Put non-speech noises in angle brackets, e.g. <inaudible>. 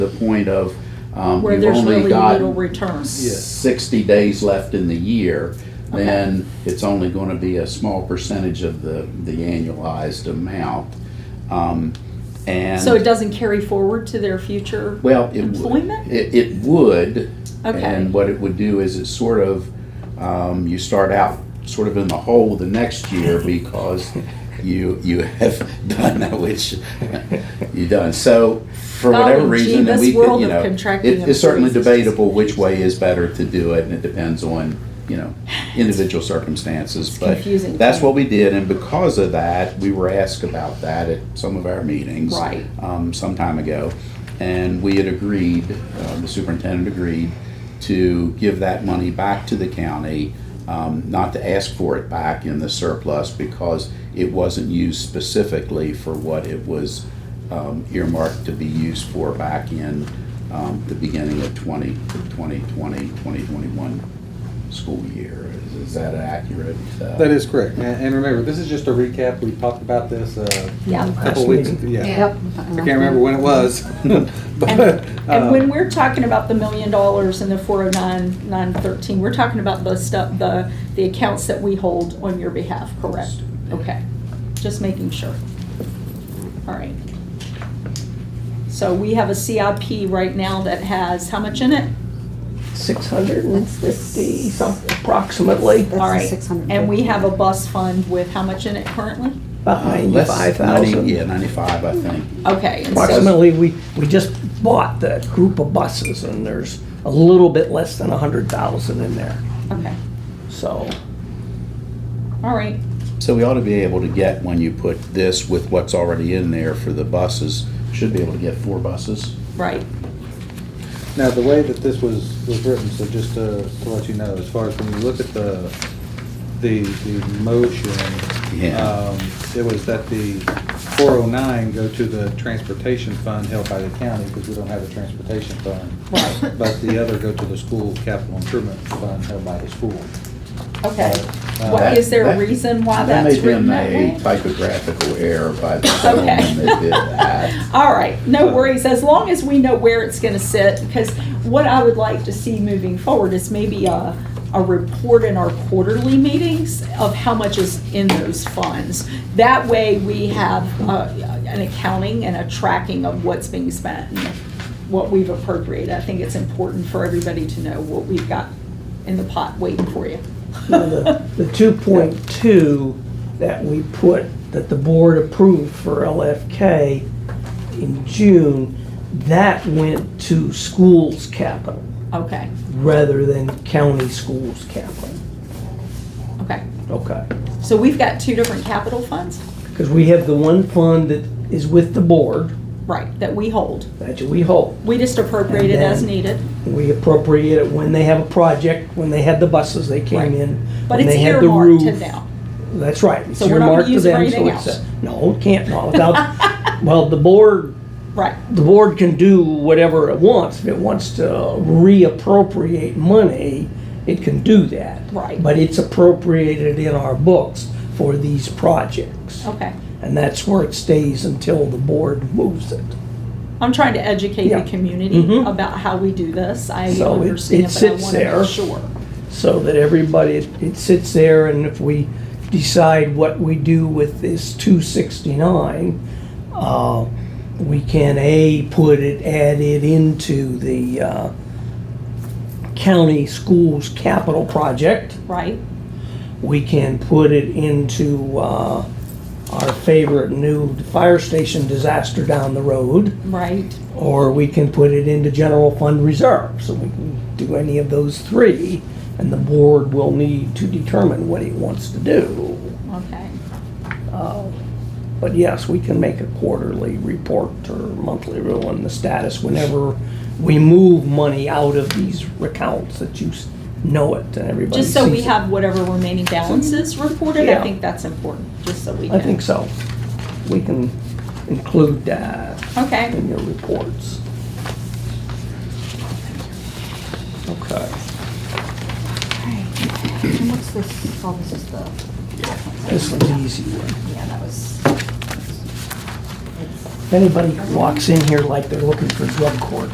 the point of, um, where you've there's only really little got return. sixty days left in the year, then it's only gonna be a small percentage of the, the annualized amount. Um, and. So it doesn't carry forward to their future? Well, it Employment? would. It, it would. Okay. And what it would do is it sort of, um, you start out sort of in the hole the next year <laughs> because you you have done that which you done. So for whatever Oh, gee, reason, and this we could, world you of know, contracting it- it's certainly employees is just- debatable which way is better to do it, and it depends on you know individual circumstances. but confusing. that's what we did, and because of that, we were asked about that at some of our meetings Right. um, some time ago, and we had agreed, uh, the superintendent agreed, to give that money back to the county, um, not to ask for it back in the surplus because it wasn't used specifically for what it was um, earmarked to be used for back in um, the beginning of 20, 2020, 2021 school year. Is- Is that accurate? Uh, That is correct. And and remember, this is just a recap. We talked about this uh, a Yeah. couple weeks, yeah. Yep. I can't remember when it was. <laughs> And, but and when uh, we're talking about the million dollars and the four oh nine, nine thirteen, we're talking about the stuff, the, the accounts that we hold on your behalf, correct? Okay, just making sure. All right. So we have a CIP right now that has how much in it? six hundred and fifty something approximately, That's All the right. 650. And we have a bus fund with how much in it currently? about uh, less- ninety-five 90 Yeah, thousand. 95, I think. Okay. and so- Approximately, we, we just bought the group of buses and there's a little bit less than a hundred thousand in there, Okay, so. all right. So we ought to be able to get, when you put this with what's already in there for the buses, should be able to get four buses. Right, now, the way that this was, was written, so just to, to let you know, as far as when you look at the, the, the motion, Yeah. um, it was that the four oh nine go to the transportation fund held by the county, because we don't have a transportation fund. Right. But the other go to the school capital improvement fund held by the school. okay. Uh, Why, That- is there a that- reason why that's written may that have been a way? typographical error by the <laughs> Okay. gentleman that did that. <laughs> All right, no worries, as long as we know where it's gonna sit, because what I would like to see moving forward is maybe a, a report in our quarterly meetings of how much is in those funds. That way, we have, uh, an accounting and a tracking of what's being spent and what we've appropriated. I think it's important for everybody to know what we've got in the pot waiting for you. Now, The <laughs> the 2.2 that we put, that the board approved for LFK in June, that went to schools capital <laughs> Okay, rather than county schools capital. okay. Okay. So we've got two different capital funds? Because we have the one fund that is with the board, Right, that we hold. that we hold. We just appropriate it as needed, We appropriate it when they have a project, when they had the buses, they came Right. in. but when it's they had the earmarked to roof. now. That's right. It's So we're not gonna earmarked to use it for them, so anything it's a- else. No, it can't, no, <laughs> without, well, the board, Right, the board can do whatever it wants. If it wants to reappropriate money, it can do that. Right. But it's appropriated in our books for these projects. okay. And that's where it stays until the board moves it. I'm trying to educate the Yeah. community Mhm. about how we do this. I So it- it understand, but I sits want to there. be sure. so that everybody, it it sits there, and if we decide what we do with this 269, uh, we can, A, put it, add it into the uh, county schools capital project. Right, We can put it into uh, our favorite new fire station disaster down the road, right, or we can put it into general fund reserve. So we can do any of those three, and the board will need to determine what it wants to do. okay. But yes, we can make a quarterly report or monthly rule on the status whenever we move money out of these accounts that you s- know it and everybody Just so we sees it. have whatever remaining balances reported, I Yeah. think that's important, just so we can. I think so. We can include that Okay, in your reports. Okay. And what's this, oh, this is the, This is an easy one. yeah, that was, If anybody walks in here like they're looking for drug court,